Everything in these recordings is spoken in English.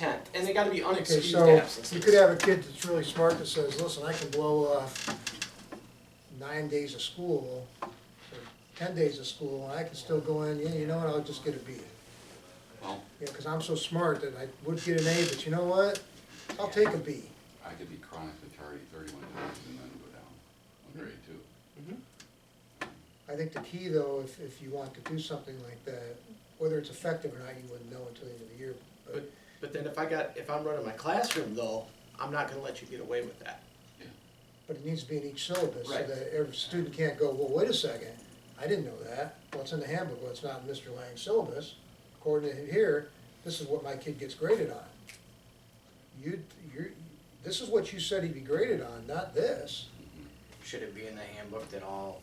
intent, and they gotta be Okay, unexcused so absences. you could have a kid that's really smart that says, listen, I can blow off nine days of school, or ten days of school, and I can still go in, yeah, you know what, I'll just get a B. Well- Yeah, cause I'm so smart that I would get an A, but you know what, I'll take a B. I could be chronically tardy thirty-one times and then go down Hmm. on grade two. I think the key though, if, if you want to do something like that, whether it's effective or not, you wouldn't know until the end of the year, but But, but then if I got, if I'm running my classroom though, I'm not gonna let you get away with that. But it needs to be in each syllabus, so Right. that every student can't go, well, wait a second, I didn't know that. Well, it's in the handbook, well, it's not in Mr. Lang's syllabus. According to here, this is what my kid gets graded on. You, you, this is what you said he'd be graded on, not this. Should it be in the handbook that all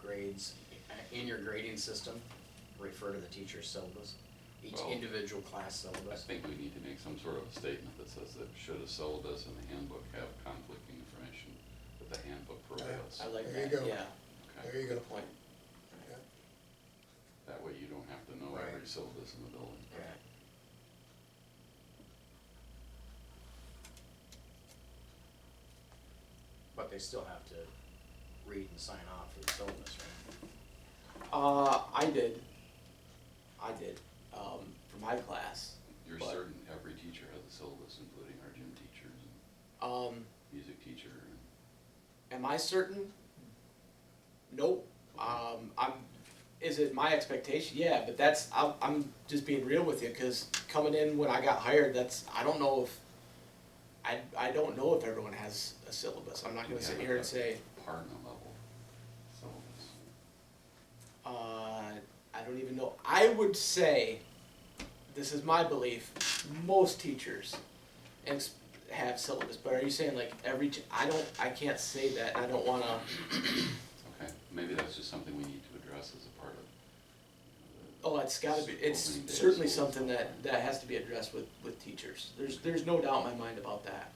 grades, uh, in your grading system, refer to the teacher's syllabus? Each Well- individual class I syllabus? think we need to make some sort of a statement that says that should a syllabus and the handbook have conflicting information, that the handbook I prohibits. like There you that, go. yeah. Okay? There you go. Good point. That way you don't have to know every Right. syllabus in the building. Right. But they still have to read and sign off for the syllabus, right? Uh, I did, I did, um, for my class, You're But- certain every teacher has a syllabus, including our gym teachers, and um, music teacher, and am I certain? Nope, um, I'm, is it my expectation? Yeah, but that's, I'm, I'm just being real with you, cause coming in when I got hired, that's, I don't know if, I, I don't know if everyone has a syllabus, I'm not gonna sit here and say, partner level syllabus. Uh, I don't even know. I would say, this is my belief, most teachers ex- have syllabus. But are you saying like every? T- I don't. I can't say that. and I don't wanna. Okay, maybe that's just something we need to address as a part of. you know, Oh, it's gotta be. It's Opening day certainly schools. something that that has to be addressed with with teachers. There's there's no doubt in my mind about that.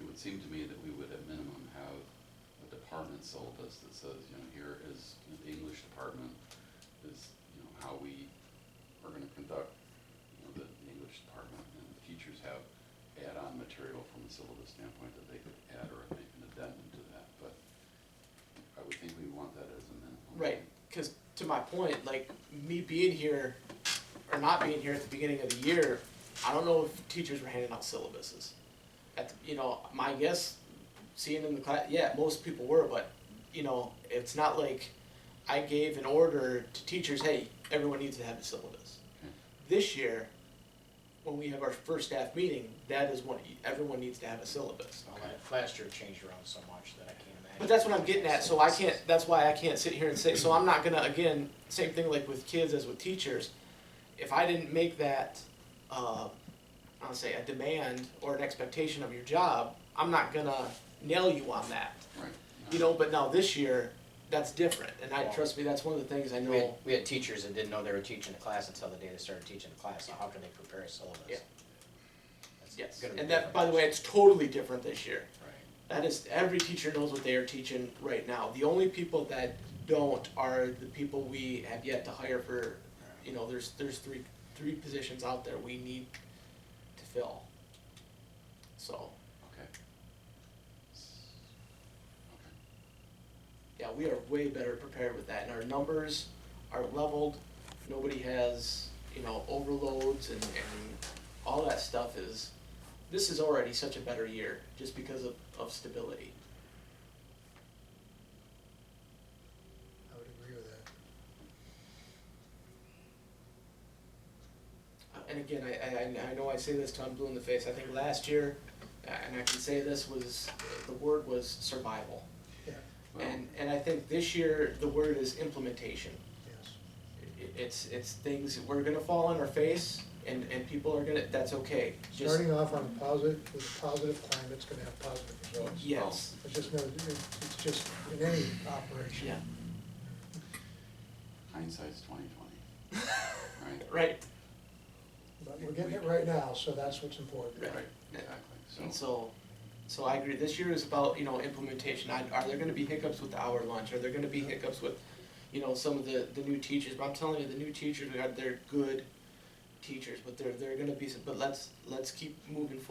It would seem to me that we would at minimum have a department syllabus that says, you know, here is, you know, the English department is, you know, how we are gonna conduct, you know, the English department, and the teachers have add-on material from a syllabus standpoint that they could add or make an addendum to that, but I would think we want that as a minimum. Right. Because to my point, like me being here or not being here at the beginning of the year, I don't know if teachers were handing out syllabuses. At the, you know, my guess, seeing in the class, yeah, most people were, but you know, it's not like I gave an order to teachers, hey, everyone needs to have a syllabus. Okay. This year, when we have our first staff meeting, that is what everyone needs to have a syllabus. Well, la- Last year changed around so much that I can't imagine. But that's what I'm getting at, so I can't, that's why I can't sit here and say, so I'm not gonna, again, same thing like with kids as with teachers. If I didn't make that, uh, I'll say a demand or an expectation of your job, I'm not gonna nail you on that. Right. You know, but now this year, that's different, and I, trust me, that's one of the things I We had, know, we had teachers that didn't know they were teaching a class until the day they started teaching the class, so how can they prepare a syllabus? Yeah. That's yes. gonna be And that, different. by the way, it's totally different this year. Right. That is, every teacher knows what they are teaching right now. The only people that don't are the people we have yet to hire for, you know, there's, there's three, three positions out there we need to fill. So, Okay. S- Okay. yeah, we are way better prepared with that, and our numbers are leveled. Nobody has, you know, overloads and, and all that stuff is, this is already such a better year, just because of, of stability. I would agree with that. And again, I, I, I know I say this till I'm blue in the face, I think last year, uh, and I can say this was, the word was survival. Well, And, and I think this year, the word is implementation. Yes. It- It's, it's things, we're gonna fall on our face, and, and people are gonna, that's okay, just, Starting off on a positive, with a positive climate, it's gonna have positive results. yes, It's just no, it's just in any operation. yeah, hindsight's twenty twenty. Right? right, But we're getting it right now, so that's what's important. Right. Right, exactly, so. and so, so I agree, this year is about, you know, implementation, I, are there gonna be hiccups with the hour lunch, are there gonna be hiccups with, you know, some of the, the new teachers, but I'm telling you, the new teachers, we got, they're good, teachers, but there there are going to be some. But let's let's keep moving forward.